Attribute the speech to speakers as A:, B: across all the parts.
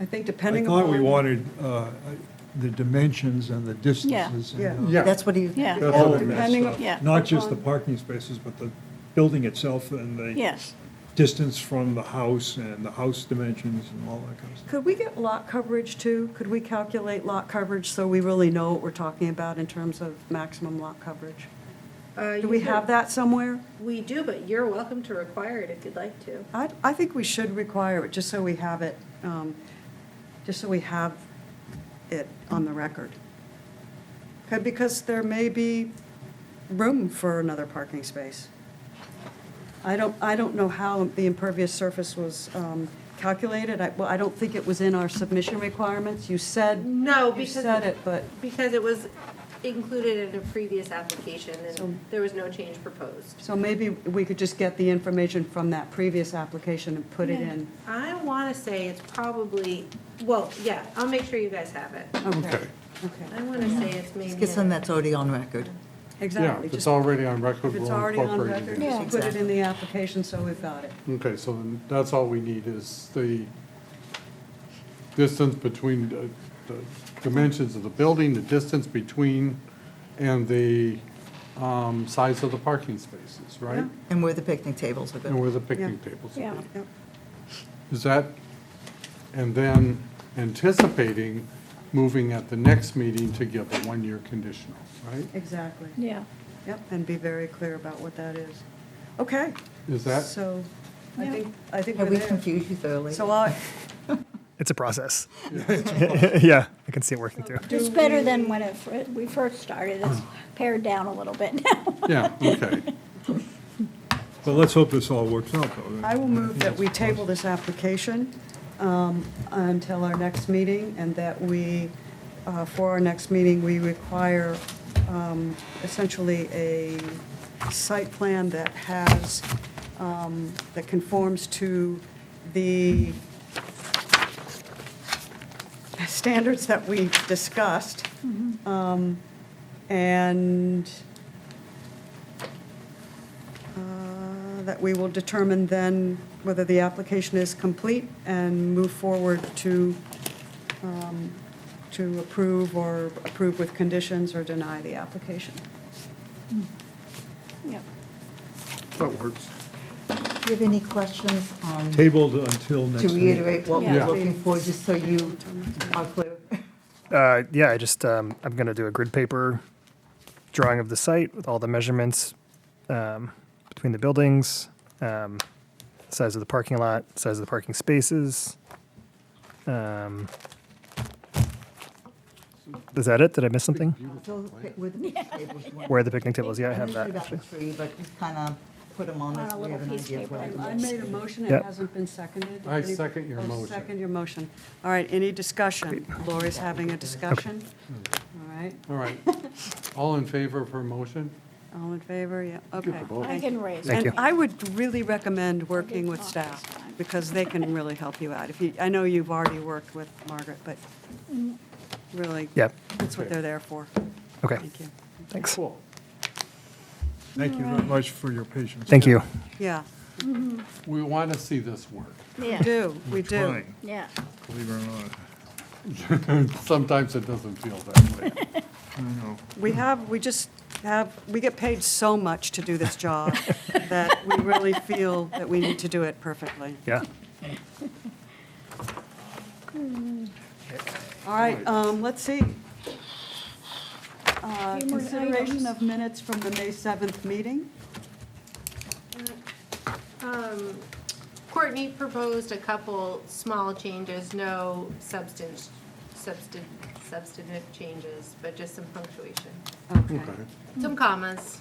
A: I think
B: I
A: depending upon.
B: thought we wanted uh, the dimensions and the distances. and,
A: Yeah.
B: uh,
C: Yeah.
D: That's what he.
E: Yeah.
B: that's all
A: Depending
B: that stuff.
E: up- yeah.
B: Not just the parking spaces, but the building itself and the.
E: Yes.
B: Distance from the house and the house dimensions and all that kind of stuff.
A: Could we get lot coverage too? Could we calculate lot coverage so we really know what we're talking about in terms of maximum lot coverage? Do we have that somewhere?
F: We do, but you're welcome to require it if you'd like to.
A: I, I think we should require it, just so we have it, um, just so we have it on the record. 'Kay, Because there may be room for another parking space. I don't, I don't know how the impervious surface was um, calculated. I, well, I don't think it was in our submission requirements. You said,
F: No,
A: you
F: because.
A: said it, but,
F: Because it was included in a previous application
A: So-
F: and there was no change proposed.
A: so maybe we could just get the information from that previous application and put it in.
F: I want to say it's probably, well, yeah, I'll make sure you guys have it.
A: Okay.
F: I want to say it's maybe.
D: Let's get something that's already on record.
C: Yeah,
A: Exactly.
C: if it's
A: Just
C: already on record,
A: If
C: we'll
A: it's already on
C: incorporate
A: record,
C: it.
A: just
D: Yeah.
A: put it in the application, so we've got it.
C: Okay, so then that's all we need is the distance between, the- the dimensions of the building, the distance between, and the um, size of the parking spaces, right?
D: And where the picnic tables are
C: And
D: going.
C: where the picnic tables
E: Yeah.
C: are.
A: Yep.
C: Is that, and then anticipating moving at the next meeting to give a one-year conditional, right?
A: Exactly.
E: Yeah.
A: Yep, and be very clear about what that is. Okay.
C: Is that-
A: So, I
E: Yeah.
A: think, I think
D: Have
A: we're
D: we
A: there.
D: confused you thoroughly?
A: So I,
G: It's a process. yeah, I can see it working through.
E: It's better than when it, fir- we first started. It's
G: Uh-huh.
E: pared down a little bit
C: Yeah,
E: now.
C: okay.
B: But let's hope this all works out, though.
A: I will move that we table this application um, until our next meeting, and that we, uh, for our next meeting, we require um, essentially a site plan that has, um, that conforms to the standards that we discussed. Um, And uh, that we will determine then whether the application is complete and move forward to, um, to approve or approve with conditions or deny the application.
E: Yep.
C: That works.
D: Do you have any questions on, to
B: Tabled until next. meeting.
D: reiterate what
C: Yeah.
D: we're looking for, just so you are clear?
G: Uh, yeah, I just um, I'm gonna do a grid paper drawing of the site with all the measurements um, between the buildings, um, size of the parking lot, size of the parking spaces. Um, is that it? Did I miss something?
D: So with the picnic tables, you want-
G: Where are the picnic tables? Yeah, I have
D: I'm not
G: that.
D: sure
G: actually.
D: about the tree, but just kind of put them on
E: On
D: this,
E: a
D: we
E: little
D: have an
E: piece of
D: idea of
E: paper
D: what it
E: and
A: I
D: is.
A: made a motion, it
G: Yep.
A: hasn't been seconded.
C: I second your
A: I'll
C: motion.
A: Second your motion. All right, any discussion? Lori's having a discussion. All right,
C: All right. All in favor of her motion?
A: all in favor, yeah, okay.
C: vote.
E: I can raise.
G: Thank
A: And
G: you.
A: I would really recommend working with
E: talk this
A: staff,
E: time.
A: because they can really help you out. If you, I know you've already worked with Margaret, but really,
G: Yep.
A: that's what they're there for.
G: Okay.
A: Thank you.
G: Thanks.
C: Cool.
B: Thank you very much for your patience.
G: Thank you.
A: Yeah,
C: We want to see this work.
A: we
E: Yeah,
A: do, we do.
B: Fine,
E: yeah.
B: Believe it or not,
C: Sometimes it doesn't feel that way.
B: I know.
A: We have, we just have, we get paid so much to do this job that we really feel that we need to do it perfectly.
G: Yeah.
A: All right, um, let's see. Uh,
E: Few more
A: Consideration
E: items.
A: of minutes from the May 7th meeting.
F: Um, Courtney proposed a couple small changes, no substance, substan- substantive changes, but just some punctuation,
A: Okay,
C: Okay.
F: some commas.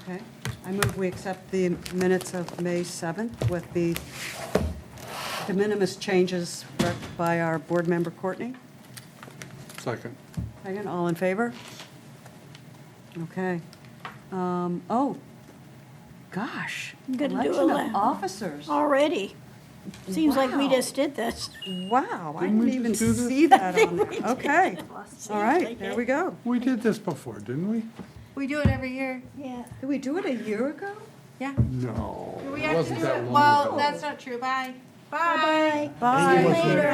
A: okay. I move we accept the minutes of May 7th with the de minimis changes worked by our board member Courtney.
C: Second.
A: Second, all in favor? Okay. Um, Oh, gosh.
E: I'm gonna do
A: Election of
E: ele-
A: officers.
E: Already. Seems like we
A: Wow.
E: just did this.
A: Wow, I didn't even see that on there. Okay, all right,
E: like
A: there
E: it.
A: we go.
C: We did this before, didn't we?
F: We do it every year.
E: Yeah.
A: Did we do it a year ago?
F: Yeah.
C: No.
F: We
C: It
F: actually
C: wasn't
F: do
C: that
F: it,
C: long ago.
F: well, that's not true, bye. Bye.
A: Bye.
E: Bye. Later.